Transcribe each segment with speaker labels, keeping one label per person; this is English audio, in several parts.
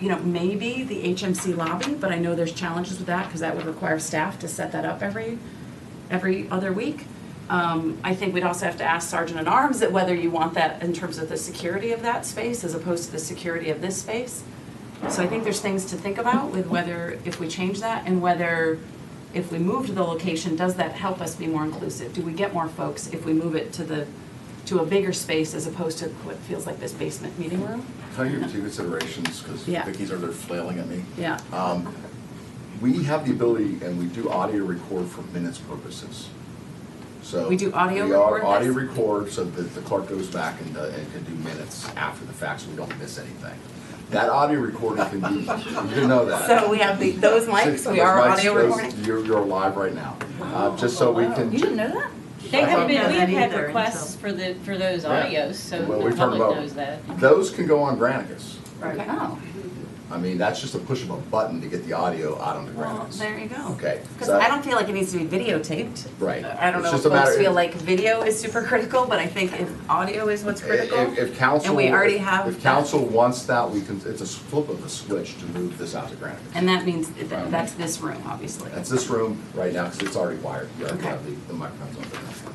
Speaker 1: you know, maybe the HMC lobby, but I know there's challenges with that because that would require staff to set that up every, every other week. Um, I think we'd also have to ask Sergeant at Arms that whether you want that in terms of the security of that space as opposed to the security of this space. So I think there's things to think about with whether, if we change that and whether, if we move to the location, does that help us be more inclusive? Do we get more folks if we move it to the, to a bigger space as opposed to what feels like this basement meeting room?
Speaker 2: Can I give you two considerations, because
Speaker 1: Yeah.
Speaker 2: Vicki's over there flailing at me?
Speaker 1: Yeah.
Speaker 2: Um, We have the ability, and we do audio record for minutes purposes. So.
Speaker 1: We do audio
Speaker 2: We are
Speaker 1: record
Speaker 2: audio
Speaker 1: this?
Speaker 2: record, so that the clerk goes back and, uh, and can do minutes after the fact, so we don't miss anything. That audio recording can be, you know that.
Speaker 1: So we have the, those mics, we are
Speaker 2: Those mics,
Speaker 1: audio
Speaker 2: those-
Speaker 1: recording.
Speaker 2: You're, you're live right now, Uh, just so we can.
Speaker 1: You didn't know that?
Speaker 3: They have been, we have
Speaker 4: Yeah,
Speaker 3: had
Speaker 4: either,
Speaker 3: requests for the, for those
Speaker 2: Yeah.
Speaker 3: audios, so
Speaker 2: Well,
Speaker 3: the
Speaker 2: we talked
Speaker 3: public
Speaker 2: about-
Speaker 3: knows that.
Speaker 2: Those can go on Granicus.
Speaker 4: Right.
Speaker 1: Oh,
Speaker 2: I mean, that's just a push of a button to get the audio out onto
Speaker 1: well,
Speaker 2: Granicus.
Speaker 1: there you go.
Speaker 2: Okay.
Speaker 1: Because
Speaker 2: so-
Speaker 1: I don't feel like it needs to be videotaped.
Speaker 2: Right.
Speaker 1: I don't
Speaker 2: It's
Speaker 1: know if
Speaker 2: just a matter-
Speaker 1: folks feel like video is super critical, but I think if audio is what's critical.
Speaker 2: If- If council.
Speaker 1: And we already
Speaker 2: if-
Speaker 1: have.
Speaker 2: If council wants that, we can, it's a flip of the switch to move this out to Granicus.
Speaker 1: And that means, th- that's this room, obviously.
Speaker 2: Um, That's this room right now, because it's already wired. You already
Speaker 1: Okay.
Speaker 2: have the the microphones on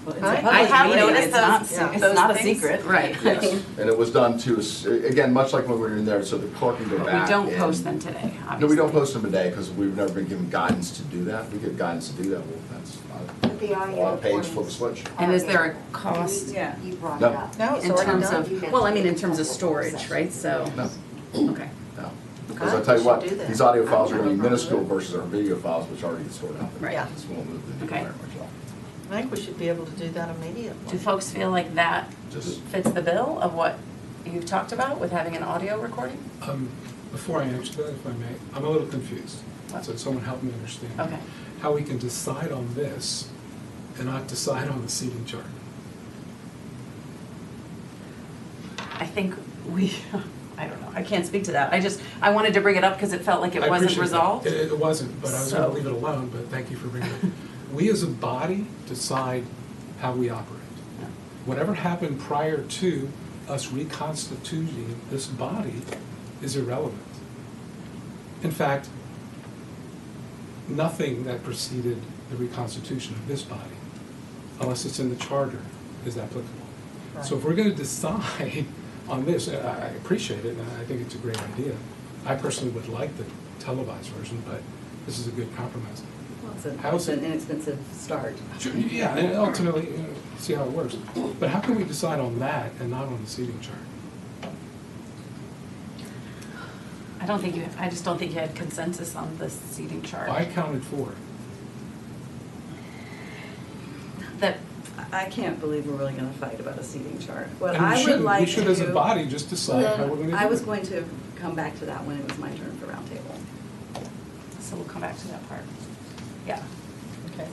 Speaker 4: Well, it's a
Speaker 1: I
Speaker 4: public
Speaker 1: have
Speaker 4: meeting,
Speaker 1: noticed
Speaker 4: it's not-
Speaker 1: those,
Speaker 4: yeah.
Speaker 1: those
Speaker 4: It's not a
Speaker 1: things-
Speaker 4: secret.
Speaker 1: Right.
Speaker 2: there. Yes, And it was done to, us- again, much like when we were in there, so the clerk can go
Speaker 1: But
Speaker 2: back.
Speaker 1: we don't
Speaker 2: and-
Speaker 1: post them today, obviously.
Speaker 2: No, we don't post them today, because we've never been given guidance to do that. If we get guidance to do that, well, that's not.
Speaker 4: The audio
Speaker 2: On page, flip a
Speaker 4: recordings.
Speaker 2: switch.
Speaker 1: And is there a cost
Speaker 3: Yeah.
Speaker 4: You brought it
Speaker 2: No.
Speaker 4: up.
Speaker 5: No, it's
Speaker 1: in
Speaker 5: already
Speaker 1: terms
Speaker 5: done.
Speaker 1: of, well, I mean, in terms of storage, right? So,
Speaker 2: No,
Speaker 1: okay.
Speaker 2: no. Because I
Speaker 5: God,
Speaker 2: tell
Speaker 5: we
Speaker 2: you
Speaker 5: should
Speaker 2: what,
Speaker 5: do that.
Speaker 2: these audio files
Speaker 1: I don't
Speaker 2: are going to be
Speaker 1: remember
Speaker 2: minuscule
Speaker 1: that.
Speaker 2: versus our video files, which are already stored out there.
Speaker 1: Right.
Speaker 5: Yeah.
Speaker 2: This won't move the needle
Speaker 1: Okay.
Speaker 2: very much at all.
Speaker 5: I think we should be able to do that
Speaker 1: Do
Speaker 5: immediately.
Speaker 1: folks feel like that
Speaker 2: Just-
Speaker 1: fits the bill of what you've talked about with having an audio recording?
Speaker 6: Um, Before I answer that, if I may, I'm a little confused, so someone help me understand.
Speaker 1: Okay.
Speaker 6: How we can decide on this and not decide on the seating chart?
Speaker 1: I think we, I don't know, I can't speak to that. I just, I wanted to bring it up because it felt like it
Speaker 6: I
Speaker 1: wasn't
Speaker 6: appreciate that.
Speaker 1: resolved.
Speaker 6: It it wasn't, but I was gonna
Speaker 1: So-
Speaker 6: leave it alone, but thank you for bringing it up. We as a body decide how we operate.
Speaker 1: Yeah.
Speaker 6: Whatever happened prior to us reconstituting this body is irrelevant. In fact, nothing that preceded the reconstitution of this body, unless it's in the charter, is applicable. So if we're gonna decide on this, I I appreciate it, and I think it's a great idea. I personally would like the televised version, but this is a good compromise. How is
Speaker 7: It's an
Speaker 6: it,
Speaker 7: inexpensive start.
Speaker 6: Sure, yeah, and ultimately, you know, see how it works. But how can we decide on that and not on the seating chart?
Speaker 1: I don't think you, I just don't think you had consensus on the seating chart.
Speaker 6: I counted four.
Speaker 1: That,
Speaker 7: I can't believe we're really gonna fight about a seating chart. What
Speaker 6: And we
Speaker 7: I would
Speaker 6: shouldn't.
Speaker 7: like to.
Speaker 6: We should as a body just decide how we're gonna do
Speaker 7: I was
Speaker 6: it.
Speaker 7: going to come back to that when it was my turn for roundtable.
Speaker 1: so we'll come back to that part. Yeah.
Speaker 5: Okay.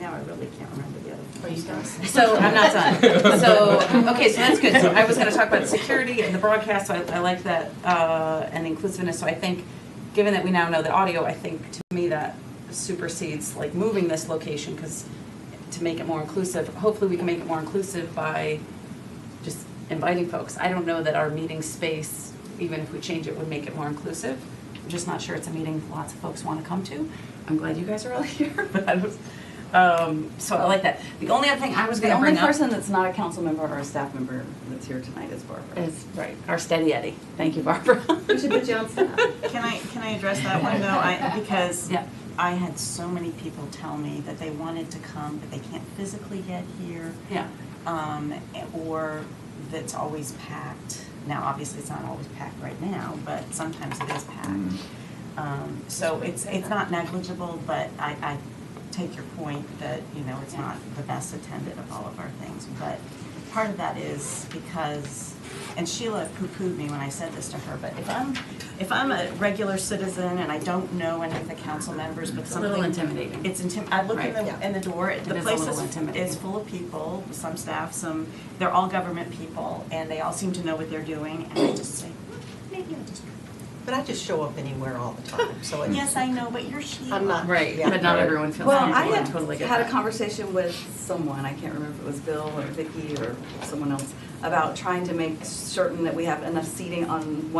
Speaker 7: Now I really can't remember the other.
Speaker 5: Are you done?
Speaker 1: So I'm not done. So, okay, so that's good. So I was gonna talk about security and the broadcast, so I, I like that, uh, and inclusiveness. So I think, given that we now know the audio, I think to me that supersedes like moving this location, because to make it more inclusive, hopefully we can make it more inclusive by just inviting folks. I don't know that our meeting space, even if we change it, would make it more inclusive. I'm just not sure it's a meeting lots of folks want to come to. I'm glad you guys are all here, but I was, um, so I like that. The only other thing I was
Speaker 7: The
Speaker 1: gonna
Speaker 7: only
Speaker 1: bring up
Speaker 7: person that's not a council member or a staff member that's here tonight is Barbara.
Speaker 1: is, right, our steady Eddie. Thank you, Barbara.
Speaker 7: We should put you on staff.
Speaker 4: Can I, can I address that one though? I, because
Speaker 1: Yeah.
Speaker 4: I had so many people tell me that they wanted to come, but they can't physically get here.
Speaker 1: Yeah,
Speaker 4: Um, or that's always packed. Now, obviously, it's not always packed right now, but sometimes it is packed.
Speaker 2: Mm.
Speaker 4: Um, so it's, it's not negligible, but I, I take your point that, you know, it's not the best attended of all of our things. But part of that is because, and Sheila poo-pooed me when I said this to her, but if I'm, if I'm a regular citizen and I don't know any of the council members, but
Speaker 1: it's a little
Speaker 4: something
Speaker 1: intimidating.
Speaker 4: it's intim, I look in
Speaker 1: Right.
Speaker 4: the, in the door, it- the
Speaker 1: It is a
Speaker 4: place
Speaker 1: little
Speaker 4: is,
Speaker 1: intimidating.
Speaker 4: is full of people, some staff, some, they're all government people, and they all seem to know what they're doing, and I just say, maybe I'll just.
Speaker 5: But I just show up anywhere all the time, so it's.
Speaker 4: Yes, I know, but you're Sheila.
Speaker 5: Hmm. I'm not-
Speaker 1: Right,
Speaker 5: Yeah.
Speaker 1: but not everyone feels
Speaker 7: Well, I
Speaker 1: comfortable.
Speaker 7: had
Speaker 1: totally get
Speaker 7: had a
Speaker 1: that.
Speaker 7: conversation with someone, I can't remember if it was Bill or Vicky or someone else, about trying to make certain that we have enough seating on one